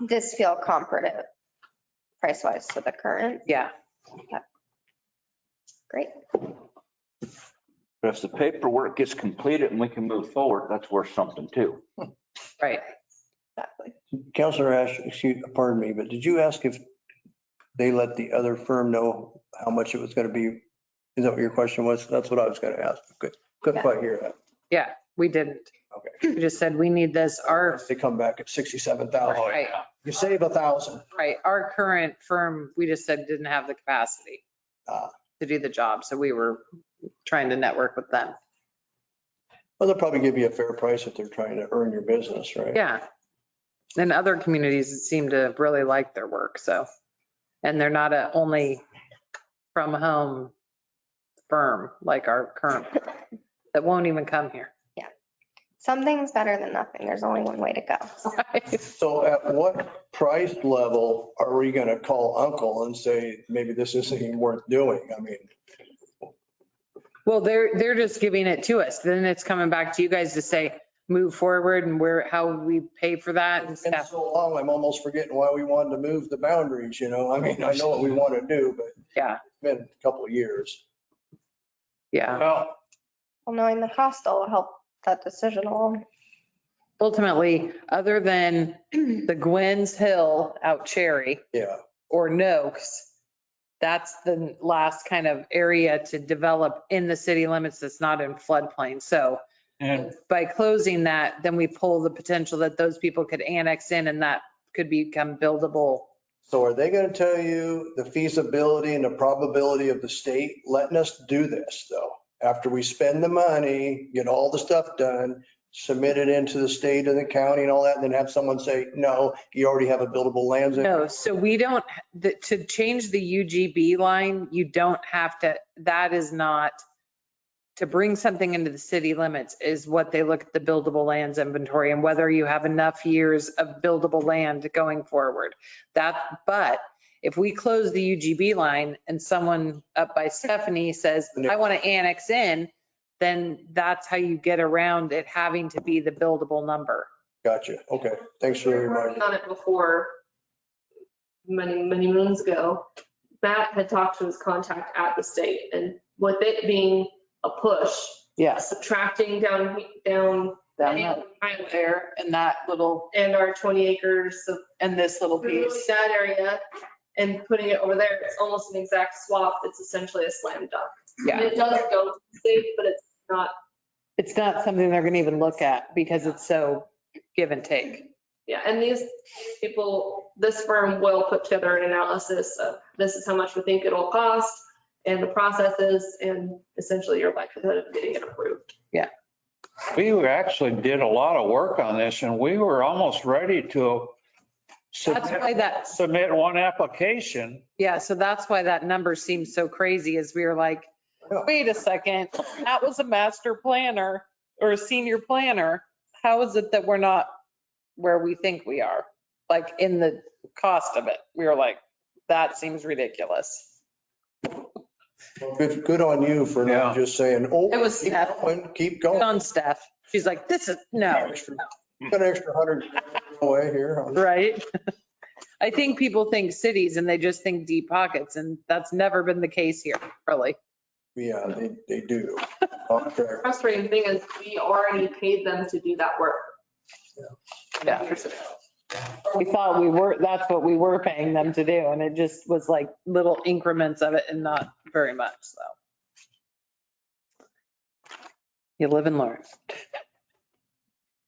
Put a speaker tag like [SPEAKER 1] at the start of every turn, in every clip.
[SPEAKER 1] this feel comparative price wise to the current?
[SPEAKER 2] Yeah.
[SPEAKER 1] Great.
[SPEAKER 3] But if the paperwork gets completed and we can move forward, that's worth something too.
[SPEAKER 2] Right.
[SPEAKER 1] Exactly.
[SPEAKER 4] Counselor Ash, excuse, pardon me, but did you ask if they let the other firm know how much it was going to be? Is that what your question was? That's what I was going to ask. Good, couldn't quite hear that.
[SPEAKER 2] Yeah, we didn't. We just said we need this, our,
[SPEAKER 4] They come back at 67,000.
[SPEAKER 2] right,
[SPEAKER 4] You save a thousand.
[SPEAKER 2] right, our current firm, we just said didn't have the capacity
[SPEAKER 4] Ah.
[SPEAKER 2] to do the job. So we were trying to network with them.
[SPEAKER 4] Well, they'll probably give you a fair price if they're trying to earn your business, right?
[SPEAKER 2] Yeah. And other communities seem to really like their work, so. And they're not a only from home firm like our current, firm that won't even come here.
[SPEAKER 1] Something's better than nothing. There's only one way to go.
[SPEAKER 4] So at what price level are we going to call uncle and say, maybe this isn't even worth doing? I mean,
[SPEAKER 2] Well, they're, they're just giving it to us. Then it's coming back to you guys to say, move forward and where, how we pay for that and
[SPEAKER 4] it's been
[SPEAKER 2] stuff.
[SPEAKER 4] so long, I'm almost forgetting why we wanted to move the boundaries, you know? I mean, I know what we want to do, but
[SPEAKER 2] Yeah,
[SPEAKER 4] it's been a couple of years.
[SPEAKER 2] yeah.
[SPEAKER 4] Well,
[SPEAKER 1] Well, knowing the cost will help that decision along.
[SPEAKER 2] Ultimately, other than the Gwen's Hill out Cherry,
[SPEAKER 4] yeah.
[SPEAKER 2] or Noakes, that's the last kind of area to develop in the city limits that's not in floodplain. So
[SPEAKER 5] And
[SPEAKER 2] by closing that, then we pull the potential that those people could annex in and that could become buildable.
[SPEAKER 4] So are they going to tell you the feasibility and the probability of the state letting us do this though? After we spend the money, get all the stuff done, submit it into the state and the county and all that, and then have someone say, no, you already have a buildable land. zone."
[SPEAKER 2] No, so we don't, the- to change the UGB line, you don't have to, that is not, to bring something into the city limits is what they look at the buildable lands inventory and whether you have enough years of buildable land going forward. That, but if we close the UGB line and someone up by Stephanie says, I want to annex in, then that's how you get around it having to be the buildable number.
[SPEAKER 4] Gotcha. Okay. Thanks for the
[SPEAKER 6] We were
[SPEAKER 4] reminder.
[SPEAKER 6] working On it before, many, many moons ago, Matt had talked to his contact at the state and with it being a push,
[SPEAKER 2] Yes.
[SPEAKER 6] subtracting down, down
[SPEAKER 2] There
[SPEAKER 6] highway
[SPEAKER 2] and that little,
[SPEAKER 6] and our 20 acres of
[SPEAKER 2] and this little piece.
[SPEAKER 6] really that area and putting it over there, it's almost an exact swap. It's essentially a slam dunk. And
[SPEAKER 2] Yeah,
[SPEAKER 6] It does go to the state, but it's not,
[SPEAKER 2] it's not something they're gonna even look at because it's so give and take.
[SPEAKER 6] yeah, and these people, this firm will put together an analysis of this is how much we think it'll cost and the processes and essentially your likelihood of getting it approved.
[SPEAKER 5] we were- actually did a lot of work on this and we were almost ready to
[SPEAKER 2] That's
[SPEAKER 5] submit,
[SPEAKER 2] why that,
[SPEAKER 5] submit one application.
[SPEAKER 2] yeah, so that's why that number seems so crazy is we were like, wait a second, that was a master planner or a senior planner. How is it that we're not where we think we are? Like in the cost of it, we were like, that seems ridiculous.
[SPEAKER 4] Good, good on you for not just saying, oh,
[SPEAKER 2] It was
[SPEAKER 4] keep
[SPEAKER 2] Steph.
[SPEAKER 4] going, keep
[SPEAKER 2] Good
[SPEAKER 4] going.
[SPEAKER 2] On Steph, she's like, this is, no.
[SPEAKER 4] Extra- Got an extra hundred away here.
[SPEAKER 2] Right? I think people think cities and they just think deep pockets and that's never been the case here, really.
[SPEAKER 4] Yeah, uh, they, they do. Contract.
[SPEAKER 6] Frustrating thing is we already paid them to do that work.
[SPEAKER 2] Yeah.
[SPEAKER 6] Years ago.
[SPEAKER 2] We thought we were, that's what we were paying them to do and it just was like little increments of it and not very much, so. You live and learn.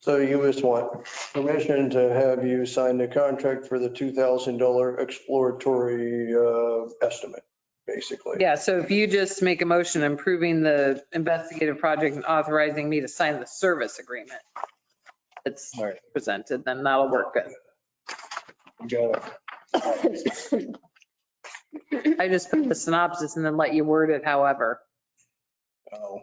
[SPEAKER 4] So you just want permission to have you sign the contract for the $2,000 exploratory uh, estimate, basically.
[SPEAKER 2] Yeah, so if you just make a motion improving the investigative project and authorizing me to sign the service agreement that's presented, then that'll work good.
[SPEAKER 4] Got it.
[SPEAKER 2] I just put the synopsis and then let you word it however.
[SPEAKER 4] Oh.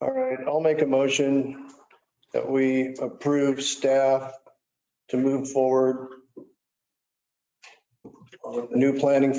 [SPEAKER 4] All right, I'll make a motion that we approve staff to move forward on the new planning